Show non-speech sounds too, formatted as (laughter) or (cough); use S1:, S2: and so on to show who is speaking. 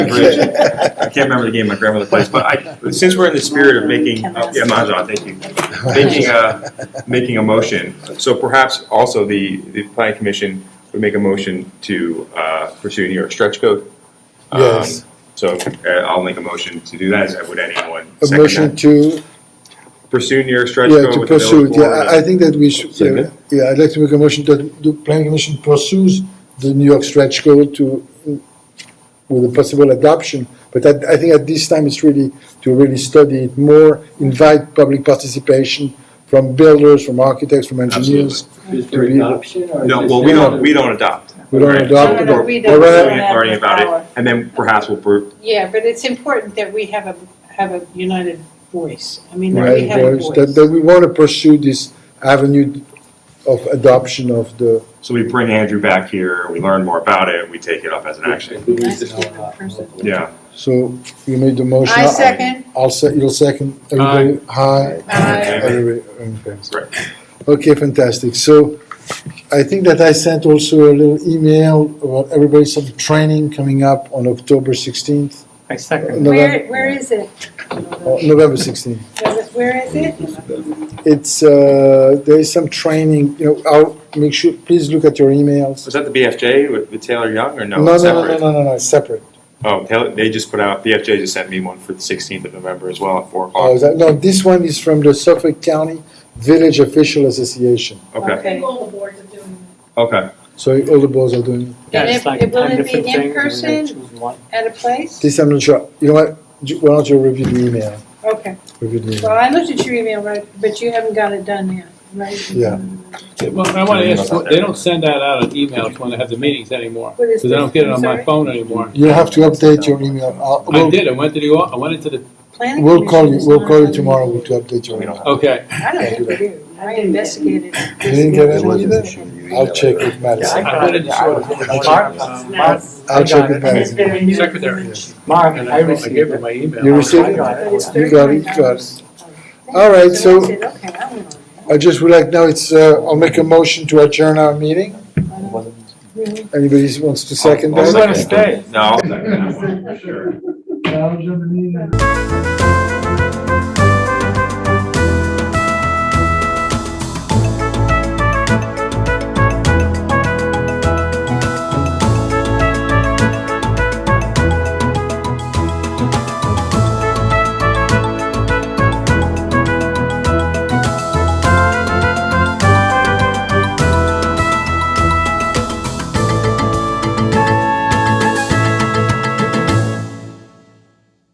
S1: (laughs)
S2: Bridge. I can't remember the game my grandmother plays, but I, since we're in the spirit of making, oh, yeah, Mahjong, thank you. Making a, making a motion, so perhaps also the, the planning commission would make a motion to uh, pursue New York stretch code. Um,
S1: Yes.
S2: So uh, I'll make a motion to do that, As would anyone
S1: A
S2: second
S1: motion
S2: that?
S1: to,
S2: Pursue New York stretch
S1: yeah,
S2: code
S1: to
S2: with the
S1: pursue,
S2: village
S1: it. yeah,
S2: board.
S1: I I think that we should, yeah,
S2: Second.
S1: yeah, I'd like to make a motion that the planning commission pursues the New York stretch code to, with a possible adoption, but I, I think at this time it's really to really study it more, invite public participation from builders, from architects, from engineers.
S3: Is there
S1: To be-
S3: adoption or?
S2: No,
S3: is
S2: well,
S3: it-
S2: we don't, we don't adopt.
S1: We don't
S2: Right.
S1: adopt
S4: No,
S1: it.
S4: no, no,
S1: or-
S4: we
S1: or
S4: don't.
S1: rather-
S2: We're authority about it, and then perhaps we'll, pro-
S4: Yeah, but it's important that we have a, have a united voice. I mean, that we
S1: Right,
S4: have a
S1: boys, that,
S4: voice.
S1: that we want to pursue this avenue of adoption of the,
S2: So we bring Andrew back here, we learn more about it, we take it up as an action.
S3: Who is
S4: That's
S3: this?
S4: a different person.
S2: Yeah.
S1: so you made the motion.
S4: I second.
S1: I'll say, you'll second. Everybody, hi.
S4: Aye.
S1: Everybody, in favor.
S2: Right.
S1: Okay, fantastic. So I think that I sent also a little email about everybody some training coming up on October sixteenth,
S5: I second.
S1: November,
S4: Where, where is it?
S1: November sixteenth.
S4: Does it- Where is it?
S1: It's, uh, there is some training, you know, I'll make sure, please look at your emails.
S2: Was that the BFJ with, with Taylor Young or no?
S1: No, no, no,
S2: Separate?
S1: no, no, no, no, separate.
S2: Oh, Taylor, they just put out, BFJ just sent me one for the 16th of November as well at 4
S1: Oh, is
S2: o'clock.
S1: that, no, this one is from the Suffolk County Village Official Association.
S2: Okay,
S4: Okay.
S6: All the boards are doing
S2: okay.
S1: So all the boards are doing,
S5: Yeah,
S4: And
S5: it's
S4: if-
S5: like
S4: it- will
S5: 10
S4: it be
S5: different
S4: in
S5: things, and then
S4: person?
S5: choose one.
S4: At a place?
S1: this I'm not sure, you know what, Ju- why don't you review the email?
S4: Okay.
S1: Review the
S4: Well,
S1: email.
S4: I looked at your email, right, but you haven't got it done yet, right?
S1: Yeah.
S7: Well, I want to ask, they don't send that out on emails when they have the meetings anymore,
S4: What is
S7: because I don't
S4: this?
S7: get it
S4: I'm
S7: on my
S4: sorry?
S7: phone anymore.
S1: You have to update your email, I'll-
S7: I
S1: we'll,
S7: did, I went to the, I went into the,
S4: Planning
S1: we'll call you,
S4: commission's
S1: we'll
S4: not
S1: call you
S4: on.
S1: tomorrow to update your
S2: We don't
S1: email.
S2: have-
S7: okay,
S4: I don't think we do. I investigated.
S1: You didn't get it either? I'll check with
S5: I
S1: Madison,
S5: got it, yeah, I was- Mark, uh, Mark,
S1: I'll check with
S5: I got it.
S1: Madison.
S7: secretary.
S5: Mark,
S7: And
S5: I
S7: I wrote- I
S5: received
S7: gave her
S5: it.
S7: my email.
S1: You received
S5: I
S1: it?
S5: got
S4: But it's
S1: You got it, you
S4: $39.
S1: got it. All right, so-
S4: I said, okay, I went on
S1: I just would like, now it's, uh, I'll make a motion to adjourn our meeting,
S5: It wasn't-
S4: that.
S1: anybody wants to second
S2: I'll
S1: that?
S5: They wanna
S2: second
S5: stay.
S2: it. No, I'll second that one, for sure.
S3: That was in the meeting.